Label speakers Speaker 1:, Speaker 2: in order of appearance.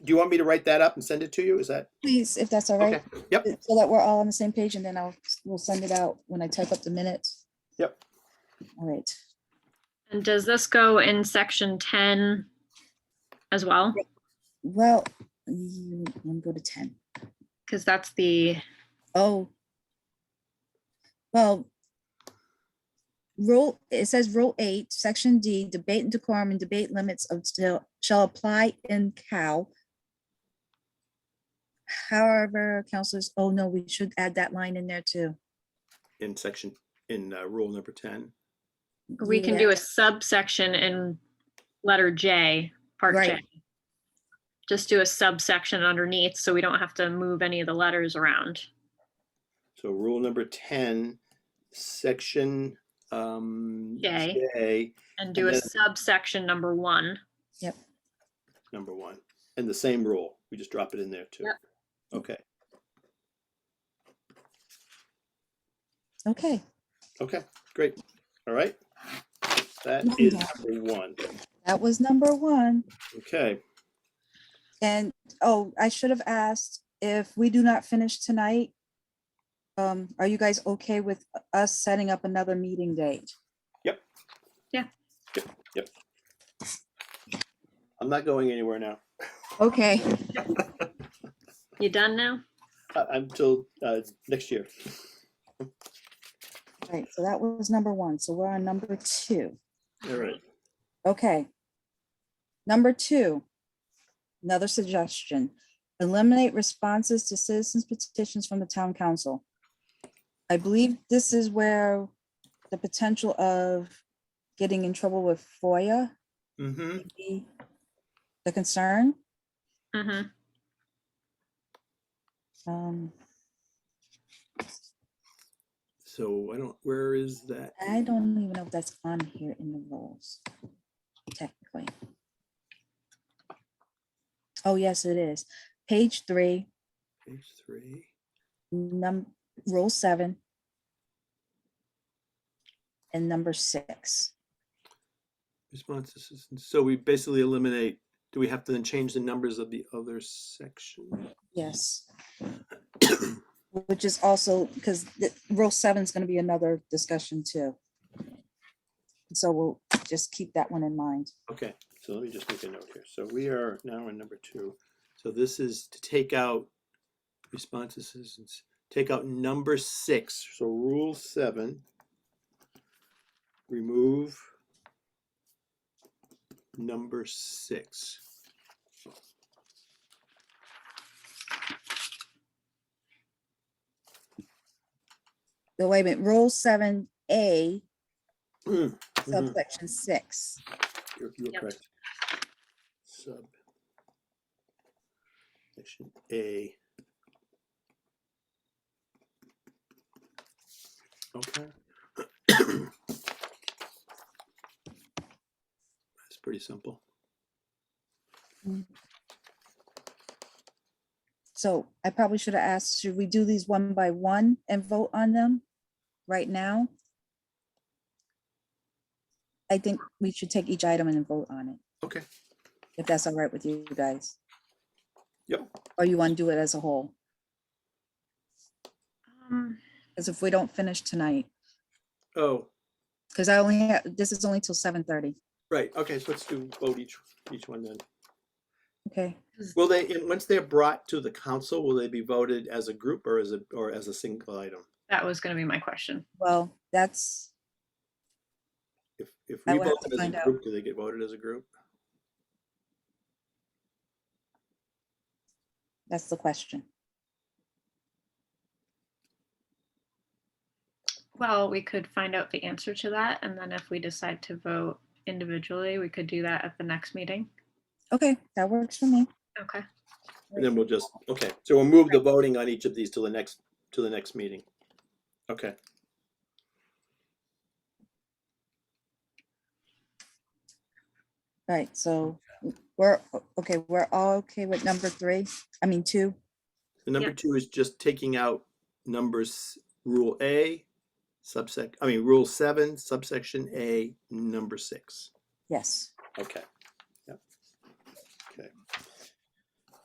Speaker 1: do you want me to write that up and send it to you? Is that?
Speaker 2: Please, if that's all
Speaker 1: okay?
Speaker 2: right, Uh,
Speaker 1: Yep,
Speaker 2: so that we're all on the same page and then I'll, we'll send it out when I type up the minutes.
Speaker 1: Yep.
Speaker 2: All right.
Speaker 3: And does this go in section 10 as well?
Speaker 2: Well, you- let me go to ten.
Speaker 3: Because that's the,
Speaker 2: Oh. Well. Rule, it says rule eight, section D, debate and decorum and debate limits of still shall apply in cow. However, counselors, oh no, we should add that line in there too.
Speaker 1: in section, in uh, rule number 10.
Speaker 3: we can do
Speaker 2: Yeah,
Speaker 3: a subsection in letter J, part J.
Speaker 2: Right.
Speaker 3: Just do a subsection underneath, so we don't have to move any of the letters around.
Speaker 1: So rule number 10, section um,
Speaker 3: J.
Speaker 1: J,
Speaker 3: And do a
Speaker 1: And then-
Speaker 3: subsection number one.
Speaker 1: number one. And the same rule, we just drop it in there too.
Speaker 3: Yep.
Speaker 1: Okay,
Speaker 2: Okay,
Speaker 1: okay, great. All right. That
Speaker 2: Number.
Speaker 1: is number one.
Speaker 2: that was number one.
Speaker 1: Okay,
Speaker 2: And, oh, I should have asked if we do not finish tonight. Um, are you guys okay with us setting up another meeting date?
Speaker 1: I'm not going anywhere now.
Speaker 2: Okay.
Speaker 3: You done now?
Speaker 1: I- I'm till uh, next year.
Speaker 2: Right, so that was number one, so we're on number two,
Speaker 1: All right.
Speaker 2: okay. Number two, another suggestion, eliminate responses to citizens petitions from the town council. I believe this is where the potential of getting in trouble with FOIA,
Speaker 1: Mm-hmm.
Speaker 2: may be the concern.
Speaker 3: hmm
Speaker 2: Um,
Speaker 1: So I don't, where is that?
Speaker 2: I don't even know if that's on here in the rules, technically. Oh, yes, it is. Page three,
Speaker 1: Page three.
Speaker 2: num, rule seven. And number six.
Speaker 1: Responses. So we basically eliminate, do we have to then change the numbers of the other section?
Speaker 2: Yes. Which is also, because the rule seven is gonna be another discussion too. So we'll just keep that one in mind.
Speaker 1: Okay, so let me just make a note here. So we are now in number two. So this is to take out responses, and s- take out number six. So rule seven. Remove number six.
Speaker 2: The wait a minute, rule seven A
Speaker 1: Mm, mhm,
Speaker 2: subsection six.
Speaker 1: You're you're
Speaker 3: Yep.
Speaker 1: correct. Sub. Section A. Okay. That's pretty simple.
Speaker 2: So I probably should have asked, should we do these one by one and vote on them right now? I think we should take each item and then vote on it,
Speaker 1: Okay.
Speaker 2: if that's all right with you guys.
Speaker 1: Yep.
Speaker 2: Or you want to do it as a whole,
Speaker 3: Um,
Speaker 2: because if we don't finish tonight,
Speaker 1: Oh,
Speaker 2: because I only have, this is only till seven thirty,
Speaker 1: right. Okay, so let's do vote each, each one then.
Speaker 2: okay?
Speaker 1: Will they, and once they're brought to the council, will they be voted as a group or as a, or as a single item?
Speaker 3: That was gonna be my question.
Speaker 2: Well, that's,
Speaker 1: If, if
Speaker 2: I
Speaker 1: we
Speaker 2: will have
Speaker 1: vote
Speaker 2: to
Speaker 1: them as
Speaker 2: find
Speaker 1: a
Speaker 2: out.
Speaker 1: group, do they get voted as a group?
Speaker 2: that's the question.
Speaker 3: Well, we could find out the answer to that, and then if we decide to vote individually, we could do that at the next meeting.
Speaker 2: Okay, that works for me.
Speaker 3: Okay.
Speaker 1: And then we'll just, okay, so we'll move the voting on each of these to the next, to the next meeting. Okay,
Speaker 2: All right, so we're, okay, we're all okay with number three, I mean, two,
Speaker 1: the number
Speaker 3: Yeah.
Speaker 1: two is just taking out numbers, rule A, subsec, I mean, rule seven, subsection A, number six.
Speaker 2: yes.
Speaker 1: Okay. Yep. Okay.